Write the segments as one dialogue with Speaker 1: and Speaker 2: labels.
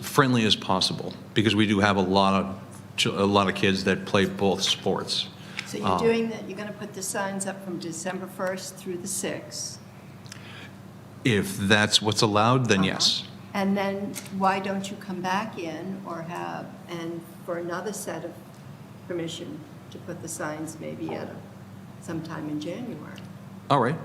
Speaker 1: friendly as possible, because we do have a lot of, ch- a lot of kids that play both sports. Um,
Speaker 2: So
Speaker 1: Oh.
Speaker 2: you're doing that, you're going to put the signs up from December 1st through the 6th?
Speaker 1: If that's what's allowed, then yes.
Speaker 2: Uh-huh. And then why don't you come back in or have, and for another set of permission to put the signs maybe at a- sometime in January?
Speaker 1: All right,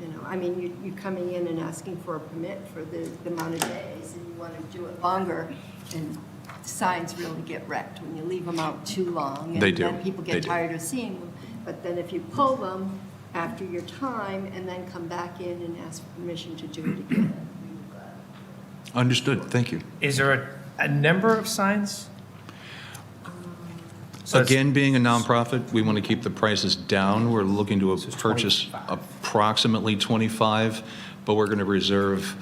Speaker 2: You know, I mean, you, you're coming in and asking for a permit for the, the amount of days, and you want to do it longer, and signs really get wrecked when you leave them out too long.
Speaker 1: They do.
Speaker 2: And then people
Speaker 1: They
Speaker 2: get
Speaker 1: do.
Speaker 2: tired of seeing them, but then if you pull them after your time, and then come back in and ask for permission to do it again. uh,
Speaker 1: understood, thank you.
Speaker 3: Is there a, a number of signs? So it's-
Speaker 1: Again, being a nonprofit, we want to keep the prices down. We're looking to
Speaker 3: it's
Speaker 1: purchase
Speaker 3: 25.
Speaker 1: approximately 25, but we're going to reserve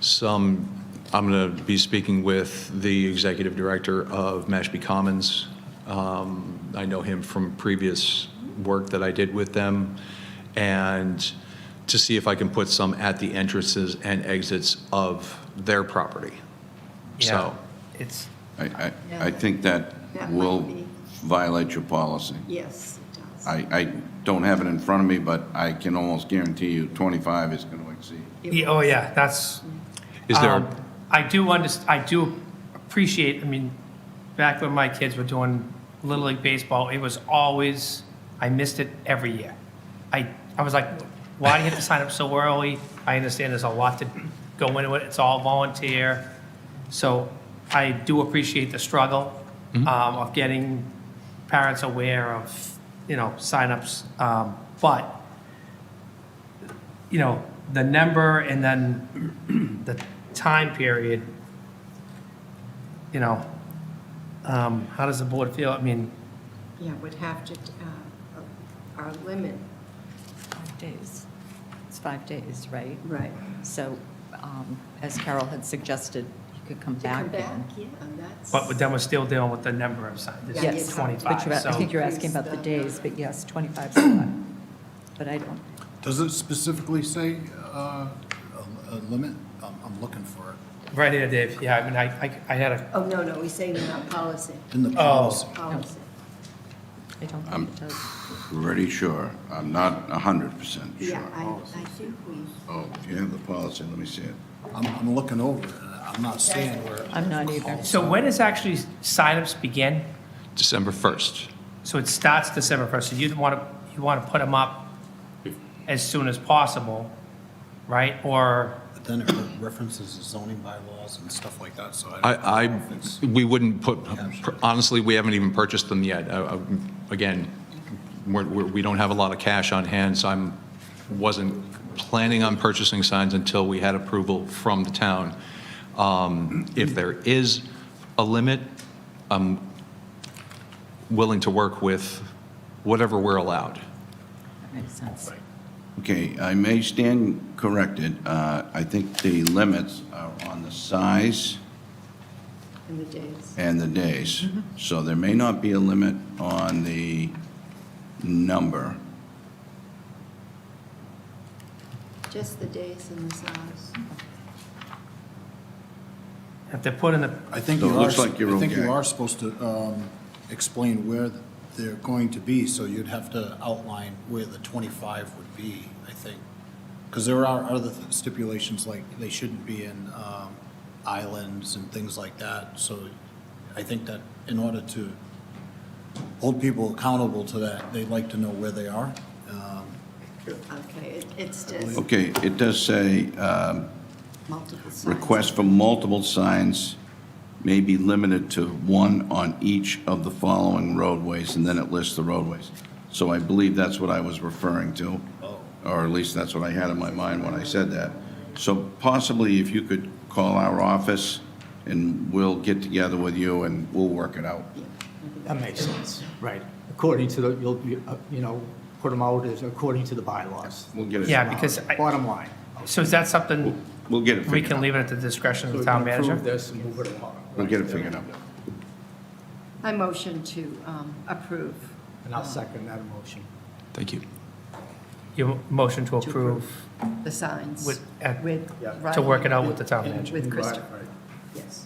Speaker 1: some, I'm going to be speaking with the executive director of Mashpee Commons. Um, I know him from previous work that I did with them, and to see if I can put some at the entrances and exits of their property.
Speaker 3: Yeah,
Speaker 1: So,
Speaker 3: It's,
Speaker 4: I, I,
Speaker 2: Yeah.
Speaker 4: I think that
Speaker 2: That might
Speaker 4: will
Speaker 2: be-
Speaker 4: violate your policy.
Speaker 2: Yes, it does.
Speaker 4: I, I don't have it in front of me, but I can almost guarantee you 25 is going to exceed.
Speaker 3: yeah, oh yeah, that's,
Speaker 1: is there,
Speaker 3: um,
Speaker 1: a-
Speaker 3: I do underst, I do appreciate, I mean, back when my kids were doing Little League Baseball, it was always, I missed it every year. I, I was like, why do you have to sign up so early? I understand there's a lot to go into it, it's all volunteer. So I do appreciate the struggle
Speaker 1: Mm-hmm.
Speaker 3: um, of getting parents aware of, you know, signups. um, But, you know, the number and then the time period, you know, um, how does the board feel? I mean,
Speaker 2: Yeah, would have to, uh, our limit.
Speaker 5: Five days. It's five days, right?
Speaker 2: Right.
Speaker 5: So um, as Carol had suggested, you could come
Speaker 2: To come
Speaker 5: back
Speaker 2: back,
Speaker 5: then.
Speaker 2: yeah, that's.
Speaker 3: but then we're still dealing with the number of signs. It's
Speaker 2: Yes, but
Speaker 3: 25,
Speaker 5: But you're- I
Speaker 3: so-
Speaker 5: think you're asking about the days, but yes, 25 is a lot. But I don't,
Speaker 6: Does it specifically say uh, a a limit? I'm I'm looking for it.
Speaker 3: Right here, Dave, yeah, I mean, I, I- I had a,
Speaker 2: Oh, no, no, we say in our policy,
Speaker 6: In the policy,
Speaker 2: policy.
Speaker 5: I don't think it does.
Speaker 4: Pretty sure. I'm not 100% sure.
Speaker 2: Yeah, I, I think we,
Speaker 4: Oh, if you have the policy, let me see it.
Speaker 6: I'm, I'm looking over it, and I'm not seeing where.
Speaker 5: I'm not either.
Speaker 3: so when does actually signups begin?
Speaker 1: December 1st?
Speaker 3: So it starts December 1st, so you want to, you want to put them up as soon as possible, right? Or,
Speaker 6: But then it references the zoning bylaws and stuff like that, so I don't
Speaker 1: I,
Speaker 6: know if it's-
Speaker 1: I, we wouldn't put, honestly, we haven't even purchased them yet. Uh, uh, Again, we're, we're- we don't have a lot of cash on hand, so I'm, wasn't planning on purchasing signs until we had approval from the town. Um, If there is a limit, I'm willing to work with whatever we're allowed.
Speaker 5: That makes sense.
Speaker 4: Okay, I may stand corrected. Uh, I think the limits are on the size
Speaker 2: in the days.
Speaker 4: and the days.
Speaker 2: Mm-hmm.
Speaker 4: So there may not be a limit on the number.
Speaker 2: Just the days and the size.
Speaker 3: if they're put in the,
Speaker 6: I think
Speaker 4: So
Speaker 6: you
Speaker 4: it
Speaker 6: are,
Speaker 4: looks like you're
Speaker 6: I think
Speaker 4: okay.
Speaker 6: you are supposed to um, explain where they're going to be, so you'd have to outline where the 25 would be, I think. Because there are other stipulations, like they shouldn't be in um, islands and things like that. So I think that in order to hold people accountable to that, they'd like to know where they are. Um,
Speaker 2: Okay, it- it's just
Speaker 4: Okay, it does say um,
Speaker 2: multiple signs.
Speaker 4: Requests for multiple signs may be limited to one on each of the following roadways, and then it lists the roadways. So I believe that's what I was referring to, or at least that's what I had in my mind when I said that. So possibly if you could call our office, and we'll get together with you and we'll work it out.
Speaker 7: That makes sense. Right. According to the, you'll, you uh, you know, put them out as according to the bylaws.
Speaker 4: We'll get it.
Speaker 3: yeah, because, I-
Speaker 7: Bottom line.
Speaker 3: so is that something
Speaker 4: We'll get it
Speaker 3: we
Speaker 4: figured
Speaker 3: can
Speaker 4: out.
Speaker 3: leave it at the discretion
Speaker 7: So
Speaker 3: of
Speaker 7: we
Speaker 3: the
Speaker 7: can
Speaker 3: town manager?
Speaker 7: Approve this and move it along.
Speaker 4: We'll get it figured out.
Speaker 2: I motion to um, approve.
Speaker 7: And I'll second that motion.
Speaker 1: Thank you.
Speaker 3: Your motion to
Speaker 2: To
Speaker 3: approve
Speaker 2: The signs.
Speaker 3: with, at-
Speaker 2: With
Speaker 7: Yeah.
Speaker 2: Riley.
Speaker 3: to work it out with the town manager?
Speaker 2: With
Speaker 7: Right,
Speaker 2: Christopher,
Speaker 7: right.
Speaker 2: yes.